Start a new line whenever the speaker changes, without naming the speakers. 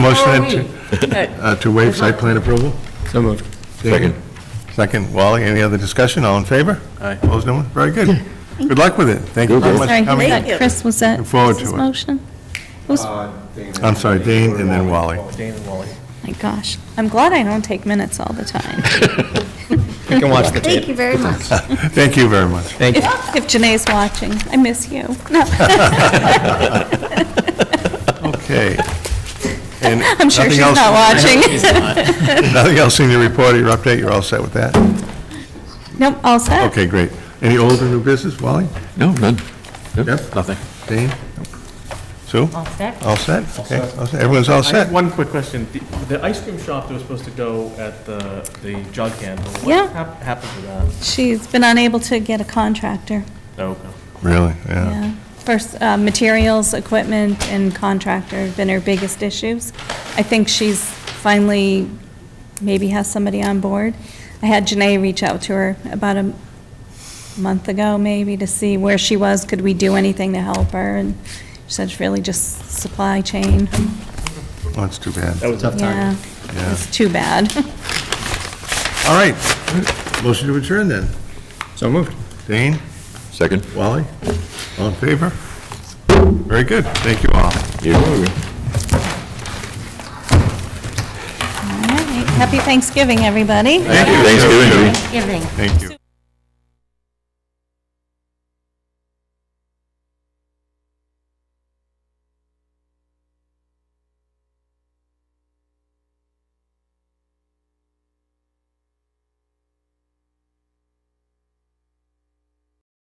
Motion then to, uh, to waive site plan approval?
So moved.
Second. Second, Wally, any other discussion, all in favor? Aye. Opposed, no one? Very good. Good luck with it, thank you very much
Sorry,
for
who was
coming.
that? Chris, was that
Look forward
Chris's
to it.
motion? Who's-
I'm sorry, Dane, and then Wally.
My gosh, I'm glad I don't take minutes all the time.
You can watch the
Thank
tape.
you very much.
Thank you very much.
Thank you.
If if Janae's watching, I miss you. No,
Okay. And
I'm sure
nothing
she's
else-
not watching.
Nothing else in your report or your update, you're all set with that?
Nope, all set.
Okay, great. Any old or new business, Wally?
No, none.
Yep.
Nothing.
Dane? Sue?
All set?
All set? Okay, all set. everyone's all
I have
set?
one quick question. The- The ice cream shop that was supposed to go at the, the jug handle,
Yeah.
what hap- happened to that?
She's been unable to get a contractor,
Oh,
Really, yeah.
yeah. First, uh, materials, equipment, and contractor have been her biggest issues. I think she's finally, maybe has somebody on board. I had Janae reach out to her about a month ago, maybe, to see where she was, could we do anything to help her? And she said it's really just supply chain.
Oh, That's too bad.
that was tough.
Yeah,
Yeah.
it's too bad.
All right. Motion to adjourn then.
So moved.
Dane?
Second?
Wally? All in favor? Very good. Thank you all.
Yeah.
All right, happy Thanksgiving, everybody.
Thanksgiving.
Giving.
Thank you.